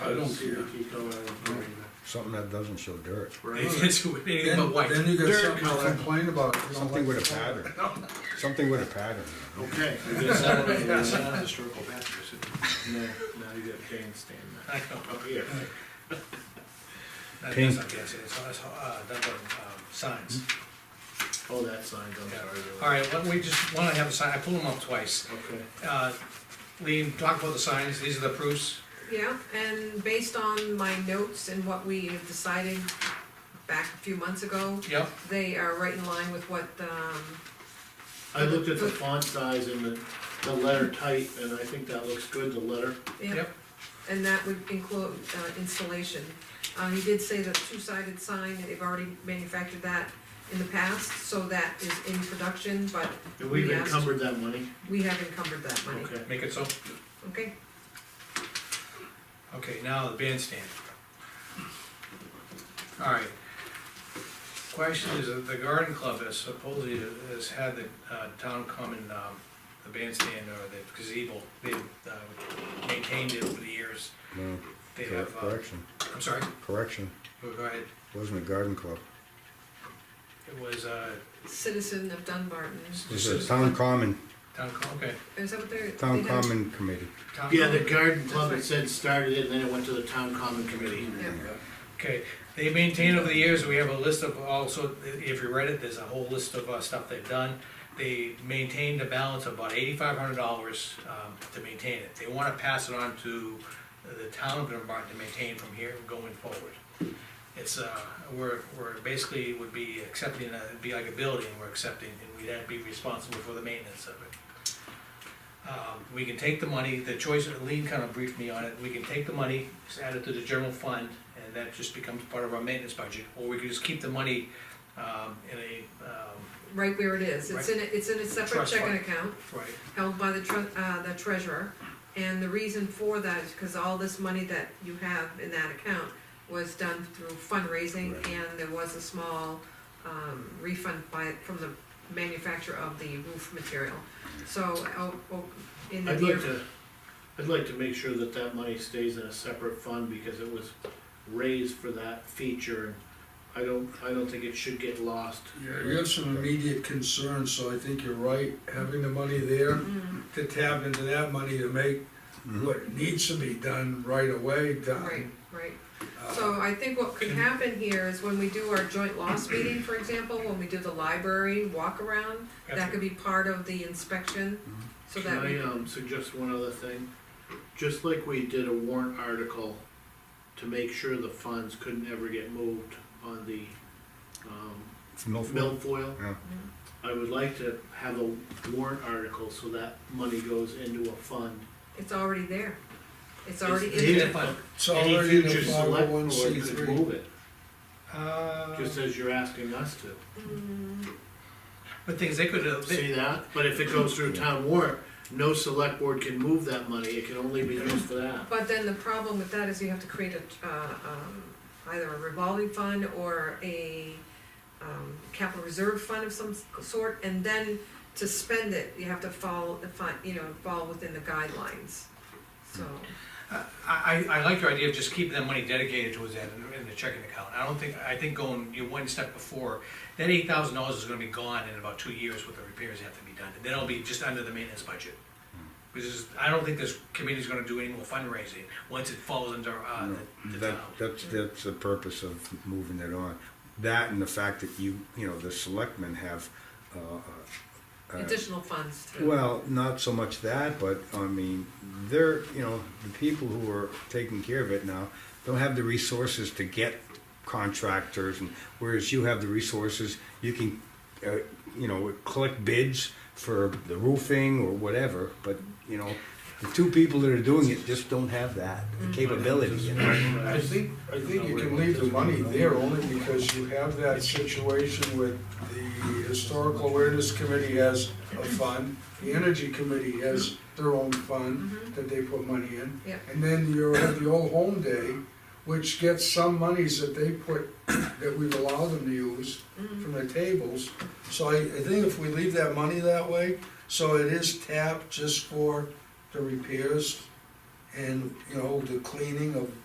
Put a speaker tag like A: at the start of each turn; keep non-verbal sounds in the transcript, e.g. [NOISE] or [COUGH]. A: I don't care.
B: something that doesn't show dirt,
C: It's anything
A: Then,
C: but white.
A: then you got
C: Dirt.
A: something to complain about. You don't
B: something
A: like
B: with a
A: the-
B: pattern, something with a pattern.
A: [LAUGHS] Okay. [LAUGHS]
D: Historical patterns.
A: No, now you got bandstand.
C: I know.
A: Up here.
C: [LAUGHS] That
B: Pink.
C: doesn't guess it, it's, it's, uh, that's, um, signs.
A: Oh, that sign, I'm
C: Yeah.
A: sorry.
C: All right, why don't we just, why don't I have a sign, I pulled them up twice.
A: Okay.
C: Uh, Lean, talk about the signs, these are the proofs.
E: Yeah, and based on my notes and what we have decided back a few months ago,
C: Yep,
E: they are right in line with what, um,
A: I looked at the font size and the, the letter type, and I think that looks good, the letter.
E: yeah,
C: yep,
E: and that would include uh, installation. Uh, he did say the two-sided sign, that they've already manufactured that in the past, so that is in production, but
A: And we've
E: Yes.
A: encumbered that money.
E: we have encumbered that money,
A: Okay.
C: make it so.
E: okay?
C: Okay, now the bandstand. All right. Question is, uh, the garden club has supposedly has had the uh, town common, um, the bandstand or the gazebo, they've uh, maintained it over the years.
B: No,
C: They
B: cor-
C: have, uh,
B: correction,
C: I'm sorry,
B: correction,
C: go ahead.
B: wasn't a garden club,
C: It was, uh,
E: Citizen of Dunbarton,
B: it was a town common,
C: town, co- okay,
E: is that what they're?
B: town
E: they have-
B: common committee.
C: town.
A: Yeah, the
C: common.
A: garden club, it said started it, and then it went to the town common committee.
E: Yeah.
C: Okay, they maintain over the years, we have a list of also, if you read it, there's a whole list of uh, stuff they've done. They maintained a balance of about eighty-five hundred dollars um, to maintain it. They wanna pass it on to the town of Dunbar to maintain from here going forward. It's, uh, we're, we're basically would be accepting, uh, it'd be like a building we're accepting, and we'd have to be responsible for the maintenance of it. Um, We can take the money, the choice, Lean kind of briefed me on it, we can take the money, just add it to the general fund, and that just becomes part of our maintenance budget, or we could just keep the money, um, in a, um,
E: Right where it is, it's in, a- it's in a separate
C: Trust
E: checking
C: fund.
E: account.
C: right,
E: held by the tre- uh, the treasurer. And the reason for that is because all this money that you have in that account was done through fundraising
B: Right.
E: and there was a small, um, refund by, from the manufacturer of the roof material. So, oh, oh, in the
A: I'd
E: near,
A: like to, I'd like to make sure that that money stays in a separate fund because it was raised for that feature. and I don't, I don't think it should get lost.
D: Yeah, you have some immediate concerns, so I think you're right, having the money there
E: Mm,
D: to tap into that money to make
B: Mm-hmm.
D: what needs to be done right away
E: right,
D: done.
E: right.
D: Uh,
E: So I think what could happen here is when we do our joint loss meeting, for example, when we do the library walk around, that could be part of the inspection, so
A: Mm-hmm. Can
E: that we
A: I, um, suggest one other thing? Just like we did a warrant article to make sure the funds couldn't ever get moved on the, um,
B: It's Milford.
A: milfoil.
B: Yeah.
A: I would like to have a warrant article so that money goes into a fund.
E: It's already there. It's already in
C: there.
E: there.
D: It's
C: Any
D: already in
A: Future
D: the five
A: select
D: oh one
A: board
D: C
A: could move
D: three.
A: it,
C: Uh,
A: just as you're asking us to.
E: Mm,
C: but things, they could, uh, they-
A: See that? But if it goes through town warrant, no select board can move that money, it can only be used for that.
E: But then the problem with that is you have to create a, uh, um, either a revolving fund or a, um, capital reserve fund of some sort, and then to spend it, you have to follow the fund, you know, fall within the guidelines, so.
C: I, I, I like your idea of just keeping that money dedicated towards that in, in the checking account. I don't think, I think going, you know, one step before, that eight thousand dollars is gonna be gone in about two years with the repairs that have to be done. And then it'll be just under the maintenance budget. Because is, I don't think this committee's gonna do any more fundraising once it falls under, uh,
B: No,
C: the, the
B: That,
C: town.
B: that's, that's the purpose of moving it on. That and the fact that you, you know, the selectmen have, uh, uh,
E: Additional funds through.
B: well, not so much that, but, I mean, they're, you know, the people who are taking care of it now don't have the resources to get contractors, and whereas you have the resources, you can, uh, you know, collect bids for the roofing or whatever, but, you know, the two people that are doing it just don't have that capability, you know?
D: I think, I think you can leave the money there only because you have that situation with the Historical Awareness Committee has a fund, the Energy Committee has their own fund
E: Mhm.
D: that they put money in.
E: Yeah.
D: And then you have the old home day, which gets some monies that they put, that we've allowed them to use
E: Mhm.
D: from the tables. So I, I think if we leave that money that way, so it is tapped just for the repairs and, you know, the cleaning of